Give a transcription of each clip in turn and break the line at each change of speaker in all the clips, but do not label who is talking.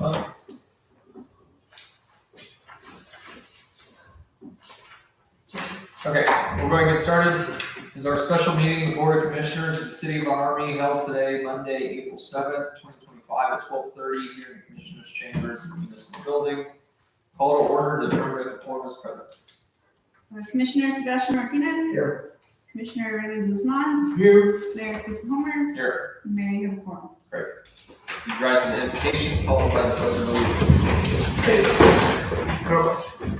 Well, Okay, we're going to get started. This Is our special meeting of the Board of Commissioners at the City of Army held today, Monday, April seventh, twenty twenty-five, at twelve thirty here in the Commissioners' Chambers in the Municipal Building. Call to order, the member of the board is present.
Uh, Commissioner Sebastian Martinez.
Here.
Commissioner Raymond Guzman.
Here.
Mayor Chris Homer.
Here,
Mayor Hill Corn.
you drive to the invocation, followed by the pledge of allegiance.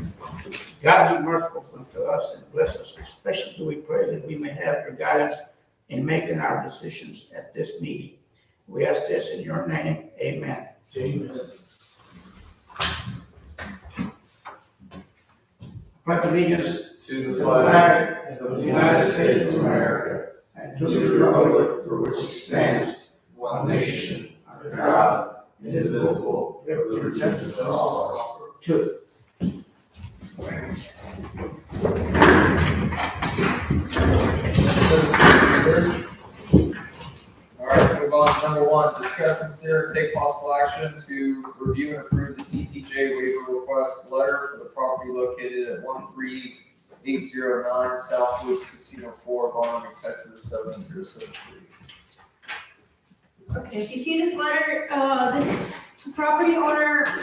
God be merciful unto us and bless us, especially do we pray that we may have your guidance in making our decisions at this meeting. We ask this in your name, amen. Pledge allegiance
To
to
the
the
flag
flag
of the United States of America
and
and to the republic for which it stands, one nation, under God, indivisible, with liberty and justice.
Two.
All right, move on to number one, discuss, consider, take possible action to review and approve the ETJ waiver request letter for the property located at one three eight zero nine South Loop sixteen oh four, Bonham, Texas, seven zero seven three.
Okay, if you see this letter, uh, this property owner,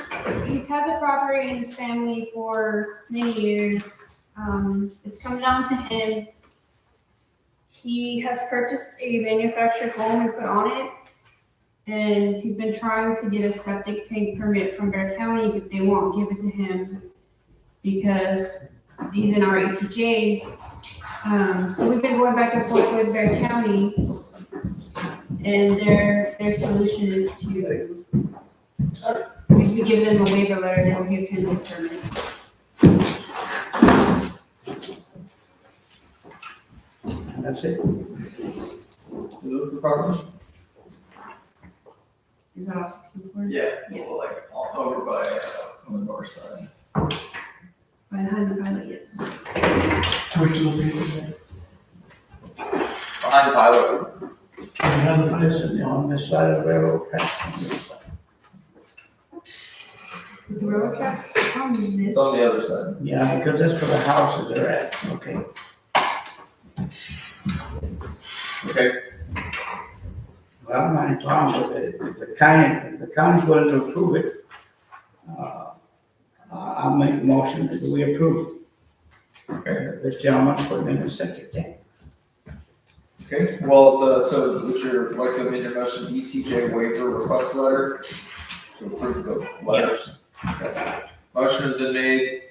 he's had the property in his family for many years. Um, it's come down to him. He has purchased a manufactured home and put on it. And he's been trying to get a septic tank permit from Bear County, but they won't give it to him because he's in our ATJ. Um, so we've been going back and forth with Bear County. And their, their solution is to, if we give them a waiver letter, they'll give him his permit.
That's it.
Is this the property?
Is that all sixty-four?
Yeah,
Yeah.
well, like, all over by, uh, on the north side.
By hand, by the, yes.
Behind Pilot.
And this is on this side of the railroad track. on this side.
The railroad tracks on this.
It's on the other side.
Yeah, because that's where the houses are at. Okay.
Okay,
Well, I'm not in town, but if if the county, if the county's willing to approve it, uh, I- I'll make a motion that we approve. it. This gentleman put in a septic tank.
okay. Well, uh, so would you like to amend your motion, ETJ waiver request letter? To approve the letter? Motion has been made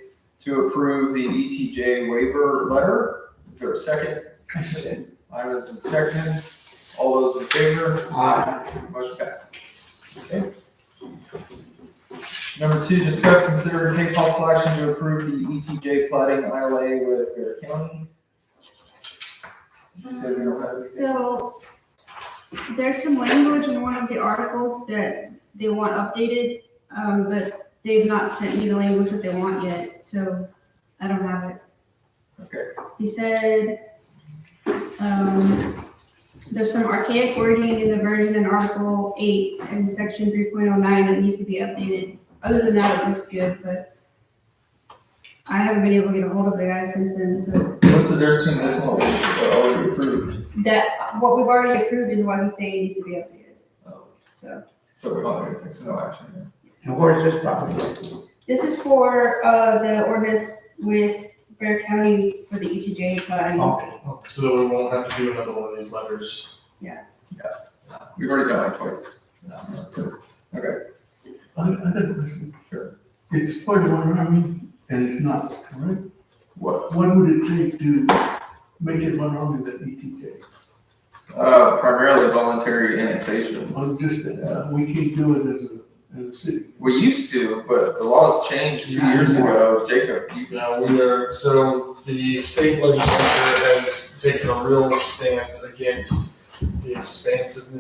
to approve the ETJ waiver letter. Is there a second?
I said,
Item has been seconded. All those in favor?
Aye.
Motion passes. Okay. Number two, discuss, consider, and take possible action to approve the ETJ plating ILA with Bear County. Did you say we don't have anything?
So there's some language in one of the articles that they want updated, um, but they've not sent me the language that they want yet, so I don't have it.
Okay.
He said, um, there's some archaic wording in the version in Article eight and section three point oh nine that needs to be updated. Other than that, it looks good, but I haven't been able to get a hold of the guy since then, so
What's the difference between this one and what already Oh, approved?
that, what we've already approved is what he's saying needs to be updated,
Oh,
so.
So we're not doing, it's no action. yeah.
And where is this property?
This is for, uh, the ordinance with Bear County for the E ETJ fund.
Okay.
So we won't have to do another one of these letters.
We've already done it twice.
I, I got a question.
Sure.
It's part of one army and it's not, correct?
What?
What would it take to make it one army that ETJ?
Uh, primarily voluntary annexation.
I'm just, uh, we can't do it as a, as a city.
We used to, but the laws changed two years ago. Jacob, you
Now, we are, so the state legislature has taken a real stance against the expansiveness